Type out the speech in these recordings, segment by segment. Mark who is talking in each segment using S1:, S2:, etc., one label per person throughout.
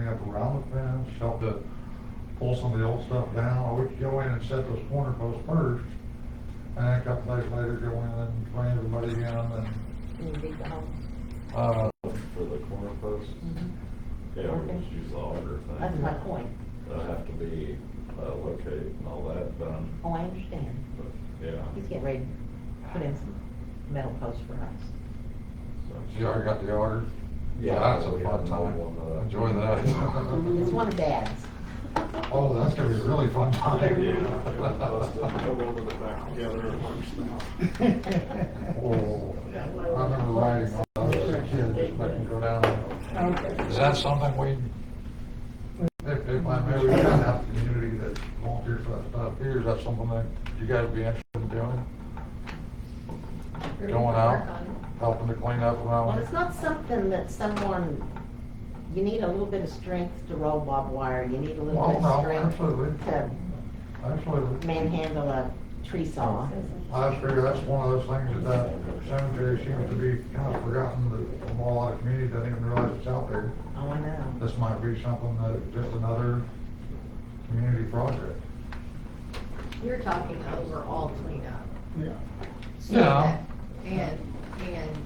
S1: have to round the fence, help to pull some of the old stuff down, or we could go in and set those corner posts first, and then a couple days later, go in and bring everybody in and,
S2: And you beat the home.
S1: uh,
S3: For the corner posts?
S1: Mm-hmm.
S3: Yeah, we just use the auger thing.
S2: Mm-hmm. That's my point.
S3: They'll have to be uh, located and all that done,
S2: Oh, I understand.
S3: but, yeah.
S2: He's getting ready to put in some metal posts for us.
S3: so-
S1: you already got the order?
S3: Yeah,
S1: That's
S3: we
S1: a fun
S3: had another
S1: time,
S3: one, uh,
S1: enjoy that.
S2: It's one of Dad's.
S1: Oh, that's gonna be a really fun time.
S3: Yeah.
S4: Go over the back together and punch them out.
S1: Oh, I remember riding when I was a kid, just letting go down. Is that something we, if, if I may, we kind of have a community that volunteers for that stuff here, is that something that you guys would be interested in doing? Going out, helping to clean up
S2: Well,
S1: around?
S2: it's not something that someone, you need a little bit of strength to roll barbed wire, you need a little
S1: Well,
S2: bit
S1: no,
S2: of strength
S1: absolutely,
S2: to
S1: absolutely.
S2: manhandle a tree saw.
S1: I figure that's one of those things that that cemetery seems to be kind of forgotten, that a whole lot of community doesn't even realize it's out there.
S2: Oh, I know.
S1: This might be something that, just another community project.
S5: You're talking overall cleanup.
S4: Yeah.
S5: So
S1: Yeah.
S5: that- And, and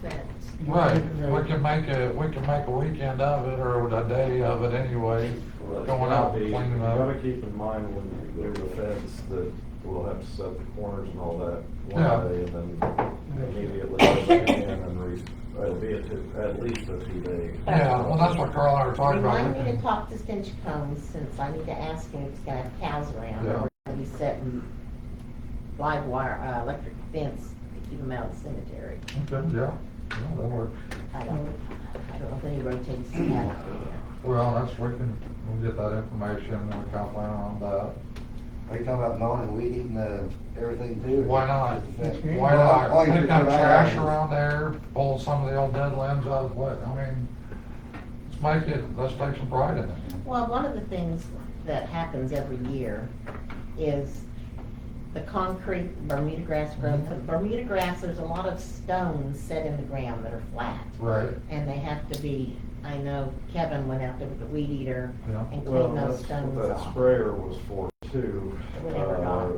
S5: fence.
S1: Right, we can make a, we can make a weekend of it, or a day of it anyway,
S3: Well, it's
S1: going out
S3: gotta be-
S1: and cleaning
S3: You gotta
S1: up.
S3: keep in mind when you do the fence that we'll have to set the corners and all that
S1: Yeah.
S3: one day and then immediately go back in and re, uh, it'll be a two, at least a two day.
S1: Yeah, well, that's what Carl and I were talking about.
S2: Remind me to talk to Stinch Combs since I need to ask him if he's gonna have cows around.
S1: Yeah.
S2: We're gonna be setting live wire, uh, electric fence to keep them out of the cemetery.
S1: Okay, yeah, yeah, that works.
S2: I don't, I don't know if any rotates that out there.
S1: Well, that's, we can, we'll get that information, and we'll kind of plan on that.
S6: Are you talking about mowing and weeding, uh, everything too?
S1: Why not?
S6: Just the-
S1: Why not?
S6: All you
S1: Pick up
S6: do is-
S1: trash around there, pull some of the old dead limbs out of what, I mean, let's make it, let's take some pride in it.
S2: Well, one of the things that happens every year is the concrete Bermuda grass grows. The Bermuda grass, there's a lot of stones set in the ground that are flat.
S1: Right.
S2: And they have to be, I know Kevin went out there with the weed eater
S1: Yeah.
S2: and
S3: Well,
S2: cleaned
S3: that's
S2: those
S3: what
S2: stones
S3: that
S2: off.
S3: sprayer was for too.
S2: It never got.
S3: Uh,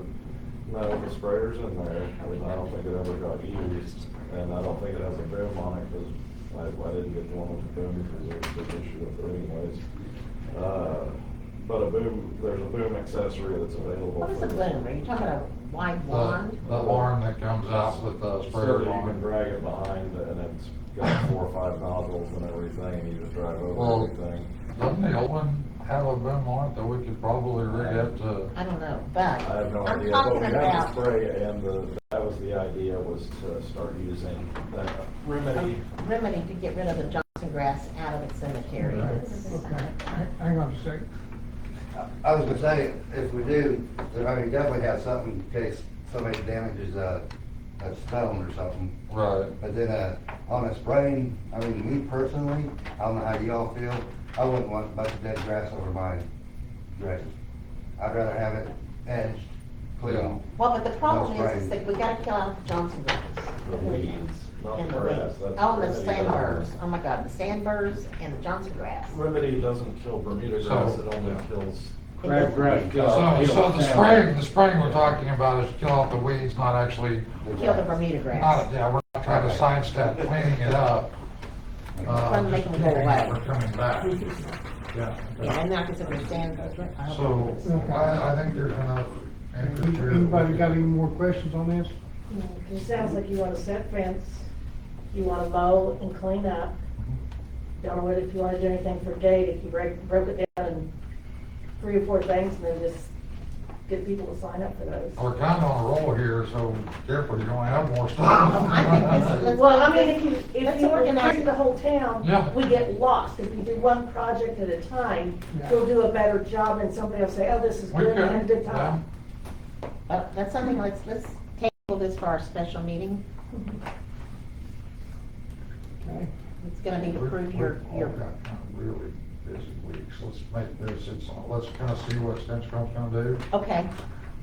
S3: No, the sprayer's in there, and I don't think it ever got used, and I don't think it has a boom on it, because I, I didn't get the one with the boom, because there was an issue with it anyways. Uh, But a boom, there's a boom accessory that's available.
S2: What is
S3: for
S2: a
S3: this.
S2: bloom? Are you talking about a wide
S1: The,
S2: wand?
S1: the arm that comes out with the
S3: So
S1: sprayer
S3: that you can
S1: on it.
S3: drag it behind, and it's got four or five nozzles and everything, and you just drive
S1: Well,
S3: over everything.
S1: Doesn't the old one have a boom on it that we could probably rig up to?
S2: I don't know, but
S3: I have no
S2: I'm
S3: idea, but
S2: talking
S3: we had the
S2: about
S3: spray and the, that was the idea, was to start using that
S2: a
S3: remedy.
S2: remedy to get rid of the Johnson grass out of the cemetery.
S1: Right.
S2: It's-
S4: Okay, hang- hang on a second.
S6: I was gonna say, if we do, then I mean, definitely have something in case somebody damages a, a stone or something.
S1: Right.
S6: But then, uh, on a spraying, I mean, me personally, I don't know how y'all feel, I wouldn't want a bunch of dead grass over my grave. I'd rather have it edged,
S1: Yeah.
S6: clean.
S2: Well, but the problem
S6: That's
S2: is, is
S6: right.
S2: that we gotta kill out the Johnson grass.
S3: The weeds, not
S2: And the
S3: grass,
S2: weeds.
S3: that's
S2: Oh, and the
S3: remedy
S2: sandburrs,
S3: doesn't-
S2: oh my God, the sandburrs and the Johnson grass.
S3: Remedy doesn't kill Bermuda
S1: So-
S3: grass, it only kills. uh,
S2: It doesn't-
S1: So, so the spraying, the spraying we're talking about is kill off the weeds, not actually,
S2: Kill the Bermuda grass.
S1: not, yeah, we're not trying to sidestep cleaning it up. Uh,
S2: Trying
S1: just
S2: to make them
S1: keeping
S2: go away.
S1: it from coming back. Yeah.
S2: Yeah, I'm not considering sandburrs.
S1: So, I, I think there's enough interest here.
S4: Anybody got any more questions on this?
S7: It sounds like you wanna set fence, you wanna mow and clean up. Don't know whether if you wanna do anything for Dave, if you break, broke it down in three or four things, and then just get people to sign up for those.
S1: We're kinda on a roll here, so careful, you're gonna have more stuff.
S2: I think this is- let's-
S7: Well, I mean, if you, if
S2: Let's
S7: you
S2: organize
S7: organize the whole town,
S1: Yeah.
S7: we get lost. If you do one project at a time,
S4: Yeah.
S7: you'll do a better job, and somebody will say, oh, this is
S1: We
S7: good, we had a
S1: could,
S7: good
S1: yeah.
S7: time.
S2: But Uh, that's something, let's, let's table this for our special meeting.
S4: Okay.
S2: It's gonna need to
S1: We're-
S2: prove
S1: we're
S2: your,
S1: all
S2: your,
S1: got kind of Really busy weeks, let's make this, it's, let's kinda see what Stinchcom's gonna do,
S2: okay,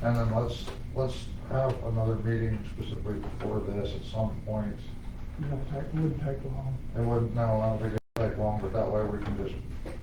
S1: and then let's, let's have another meeting specifically for this at some point.
S4: You know, it wouldn't take long.
S1: It wouldn't, no, I don't think it'd take long, but that way we can just